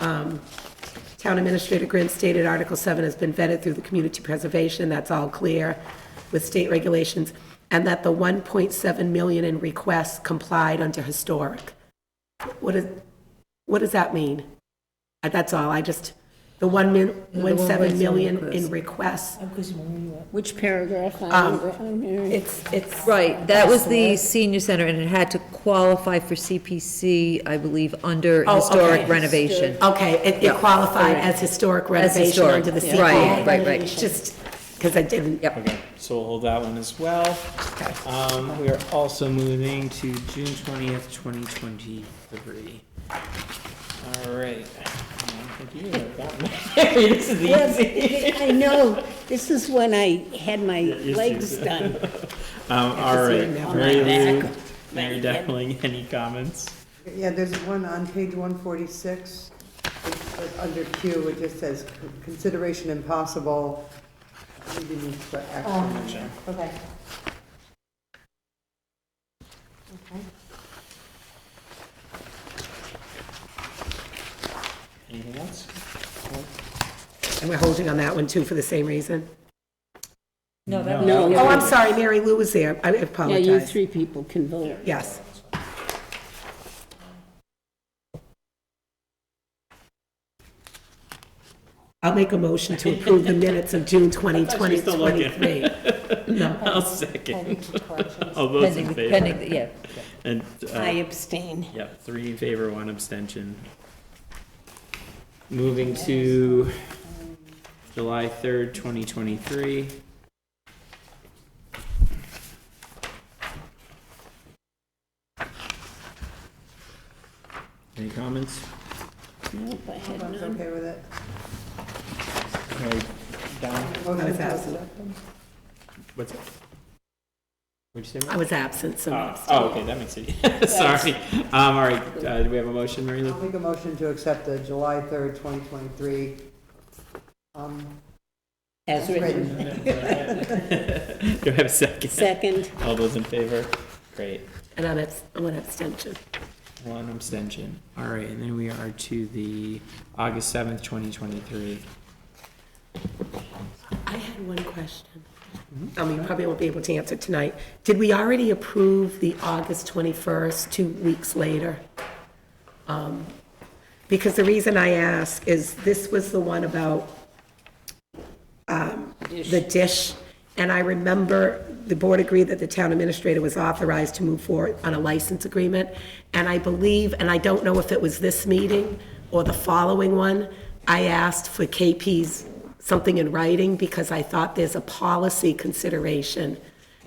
um, Town Administrator Grant stated Article 7 has been vetted through the Community Preservation, that's all clear with state regulations, and that the 1.7 million in requests complied under historic. What is, what does that mean? Uh, That's all, I just, the 1 min, 1.7 million in requests, Um, Which paragraph? I don't re- I'm hearing- it's, it's. Right, that was the senior center, and it had to qualify for CPC, I believe, under Oh, historic okay. renovation. Okay, it- it qualified as historic renovation historic, under the yeah. CPA. Right, right, right. Just, because I didn't. Yep. Okay, so we'll hold that one as well. Um, we are also moving to June twentieth, twenty twenty-three. All right. Um, I think you have that one. This is easy. I know, this is when I had my legs done. Um, all right, never Mary Lou, Mary Dowling, any comments? Yeah, there's one on page one forty-six, under Q, it just says consideration impossible. We didn't put action in there. Okay. Anything else? And we're holding on that one too for the same reason. No, that Oh, No, I'm sorry, Mary Lou was there. I yeah, you apologize. three people can vote. Yes. I'll make a motion to approve the minutes of June 20, thought she was still looking. 2023. I'll second. All those in Pending, favor? pending, yeah. And, I uh, abstain. yeah, three in favor, one abstention. Moving to July third, twenty twenty-three. Any comments? Nope, I had none. Everyone's okay with it? Mary Dowling, Motion was to absent. accept them? what's? What'd you say? Mary? I was absent, so. Uh, Oh, okay, that makes it, sorry. Um, all right, uh, do we have a motion, Mary Lou? I'll make a motion to accept the July third, twenty twenty-three. Um, As written. Do I have a second? Second, All those in favor? Great. And I'm abs- I'm an abstention. One abstention. All right, and then we are to the August seventh, twenty twenty-three. I had one question. I mean, Mm-hmm. Oh, probably won't be able to answer tonight. Did we already approve the August 21st, two weeks later? Um, Because the reason I ask is this was the one about um, the dish, and I remember the board agreed that the town administrator was authorized to move forward on a license agreement, and I believe, and I don't know if it was this meeting or the following one, I asked for KP's something in writing, because I thought there's a policy consideration,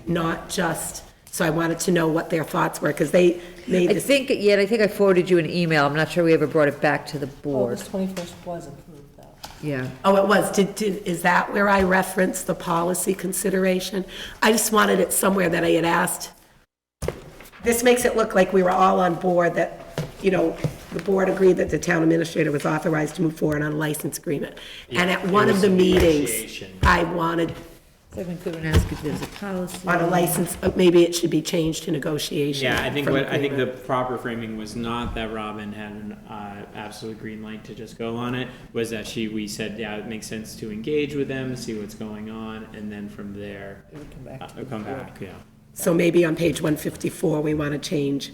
not just, so I wanted to know what their thoughts were, because they made I this, think, yeah, I think I forwarded you an email, I'm not sure we ever brought it back to the board, August 21st was approved, though. yeah. oh, it was, did, did, is that where I referenced the policy consideration? I just wanted it somewhere that I had asked This makes it look like we were all on board that, you know, the board agreed that the town administrator was authorized to move forward on a license agreement. And at one of the meetings, negotiation. I wanted So I'm going to ask if there's a policy. on a license, uh, maybe it should be changed to negotiation. Yeah, I think from what, I think the agreement. proper framing was not that Robin had an, uh, absolute green light to just go on it, was that she, we said, yeah, it makes sense to engage with them, see what's going on, and then from there, uh, come back, yeah. So maybe on page 154, we want to change,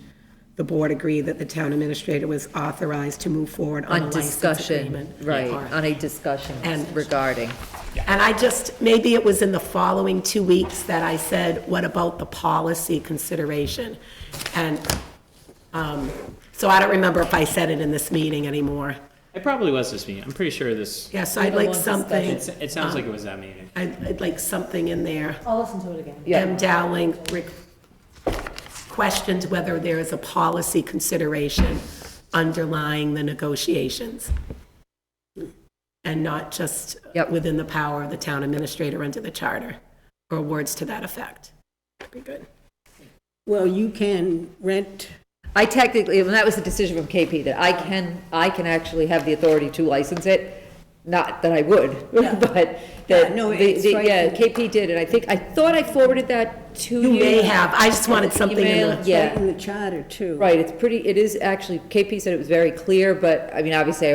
the board agreed that the town administrator was authorized to move forward on a On license discussion, agreement. right, Or- on a discussion And- regarding. And I just, maybe it was in the following two weeks that I said, what about the policy consideration? And, um, so I don't remember if I said it in this meeting anymore. It probably was this meeting, I'm pretty sure this, Yeah, so I'd like something, it, it sounds like it was that meeting. I'd, I'd like something in there. I'll listen to it again. Yeah. M. Dowling re- questioned whether there is a policy consideration underlying the negotiations. And not just Yep. within the power of the town administrator under the charter, or words to that effect. That'd be good. well, you can rent, I technically, and that was the decision from KP, that I can, I can actually have the authority to license it, not that I would, but that, Yeah, no, the- it's the- right. yeah, KP did, and I think, I thought I forwarded that to you. You may have, I just wanted something in Email, the, Yeah, in the charter, too. right, it's pretty, it is actually, KP said it was very clear, but, I mean, obviously, I